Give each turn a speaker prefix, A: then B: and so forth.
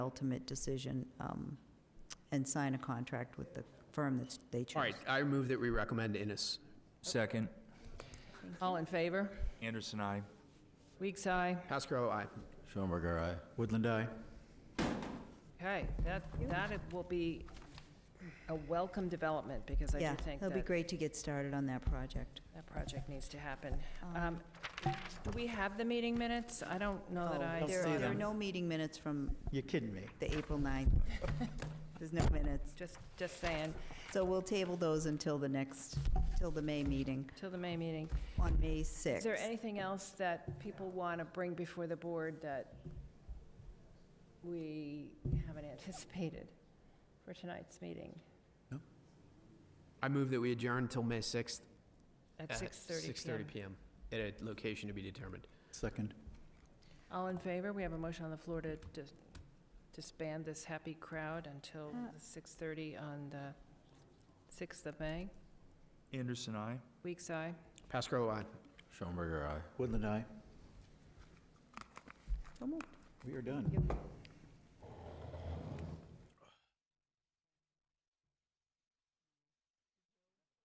A: ultimate decision um, and sign a contract with the firm that they chose.
B: All right, I move that we recommend Innis.
C: Second.
D: All in favor?
C: Anderson, I.
D: Weeks, aye.
B: Pascarello, aye.
E: Schelberger, aye.
F: Woodland, aye.
D: Okay, that, that it will be a welcome development, because I do
A: Yeah,
D: think
A: it'll be
D: that
A: great to get started on that project.
D: that project needs to happen. Um, Do we have the meeting minutes? I don't know that Oh, I,
A: Oh, There
F: see
A: are- there are
F: them.
A: no meeting minutes from
F: You're kidding me.
A: the April 9th. There's no minutes.
D: just, just saying,
A: So we'll table those until the next, till the May meeting
D: till the May meeting.
A: on May
D: Is there
A: 6th.
D: anything else that people want to bring before the board that we haven't anticipated for tonight's meeting
B: I move that we adjourn till May 6th.
D: at
B: at
D: 6:30 PM?
B: PM, at a location to be determined.
F: Second.
D: All in favor? We have a motion on the floor to dis- disband this happy crowd until
A: Uh.
D: 6:30 on the 6th of May.
C: Anderson, I.
D: Weeks, aye.
B: Pascarello, aye.
E: Schelberger, aye.
F: Woodland, aye.
A: So moved.
F: We are done.
A: Yep.